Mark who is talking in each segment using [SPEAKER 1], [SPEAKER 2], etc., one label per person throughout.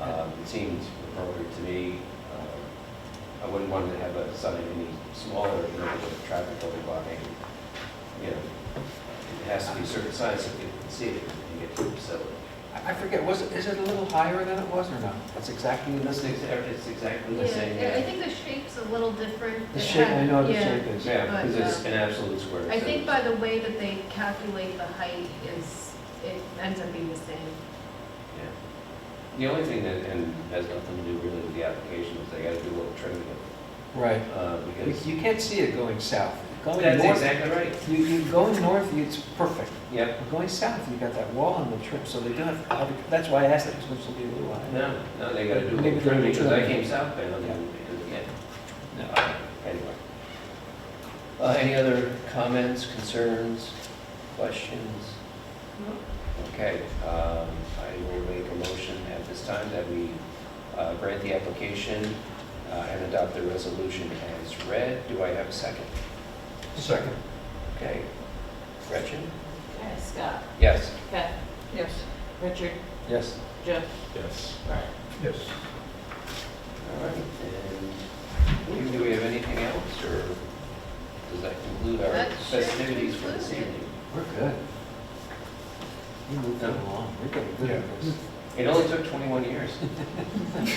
[SPEAKER 1] Um, It seemed appropriate to me. Um, I wouldn't want to have a sign any smaller than the traffic overblocking. You know, it has to be a certain size so people can see it and get to the facility.
[SPEAKER 2] I I forget, was it, is it a little higher than it was or not?
[SPEAKER 1] That's exactly the same, it's exactly
[SPEAKER 3] Yeah,
[SPEAKER 1] the same.
[SPEAKER 3] I think the shape's a little different.
[SPEAKER 2] The
[SPEAKER 3] It
[SPEAKER 2] shape,
[SPEAKER 3] had-
[SPEAKER 2] I know the
[SPEAKER 3] yeah.
[SPEAKER 2] shape is.
[SPEAKER 1] Yeah, because it's an absolute square.
[SPEAKER 3] uh, I
[SPEAKER 1] so
[SPEAKER 3] think
[SPEAKER 1] it's-
[SPEAKER 3] by the way that they calculate the height is, it ends up being the same.
[SPEAKER 1] Yeah. The only thing that, and has nothing to do really with the application, is they gotta do a little trimming of,
[SPEAKER 2] Right.
[SPEAKER 1] it, uh,
[SPEAKER 2] You
[SPEAKER 1] because.
[SPEAKER 2] you can't see it going south. Going
[SPEAKER 1] That's
[SPEAKER 2] north,
[SPEAKER 1] exactly right.
[SPEAKER 2] you, you going north, it's perfect.
[SPEAKER 1] Yep.
[SPEAKER 2] But Going south, you got that wall on the trim, so they do have, have- that's why I asked that, because it'll be a little high.
[SPEAKER 1] No, no, they gotta do a
[SPEAKER 2] Maybe
[SPEAKER 1] little
[SPEAKER 2] they
[SPEAKER 1] trimming,
[SPEAKER 2] do
[SPEAKER 1] because I
[SPEAKER 2] trimming.
[SPEAKER 1] came southbound and, and, yeah, uh, anyway. Uh, any other comments, concerns, questions? Okay, um, I will make a motion at this time that we uh, grant the application uh, and adopt the resolution as read. Do I have a second?
[SPEAKER 2] Second.
[SPEAKER 1] Okay. Gretchen?
[SPEAKER 4] Okay, Scott,
[SPEAKER 1] Yes.
[SPEAKER 4] Pat. Yes. Richard,
[SPEAKER 2] Yes.
[SPEAKER 4] Jeff,
[SPEAKER 5] Yes.
[SPEAKER 4] Brian.
[SPEAKER 5] Yes.
[SPEAKER 1] All right, and Lee, do we have anything else, or does that conclude our
[SPEAKER 3] That should
[SPEAKER 1] festivities for this
[SPEAKER 3] conclude it.
[SPEAKER 1] evening?
[SPEAKER 2] We're good. We moved
[SPEAKER 1] No.
[SPEAKER 2] along, we're getting good at this.
[SPEAKER 1] It only took 21 years.
[SPEAKER 5] That's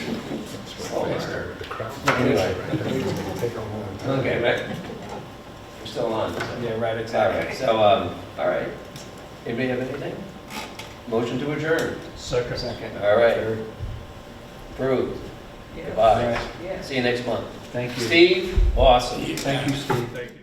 [SPEAKER 1] Oh,
[SPEAKER 5] why I
[SPEAKER 1] alright.
[SPEAKER 5] started to cry.
[SPEAKER 1] Anyway.
[SPEAKER 5] Take a long time.
[SPEAKER 1] Okay, but we're still on. so-
[SPEAKER 2] Yeah, right,
[SPEAKER 1] All right, so, um, all right. Anybody have anything? Motion to adjourn.
[SPEAKER 5] Second.
[SPEAKER 2] Second.
[SPEAKER 1] All right.
[SPEAKER 2] Third.
[SPEAKER 1] Approved.
[SPEAKER 4] Yeah.
[SPEAKER 2] All
[SPEAKER 1] Goodbye.
[SPEAKER 2] right,
[SPEAKER 4] Yes.
[SPEAKER 1] See you next month.
[SPEAKER 2] Thank you.
[SPEAKER 1] Steve, awesome.
[SPEAKER 2] Thank you, Steve.
[SPEAKER 5] Thank you.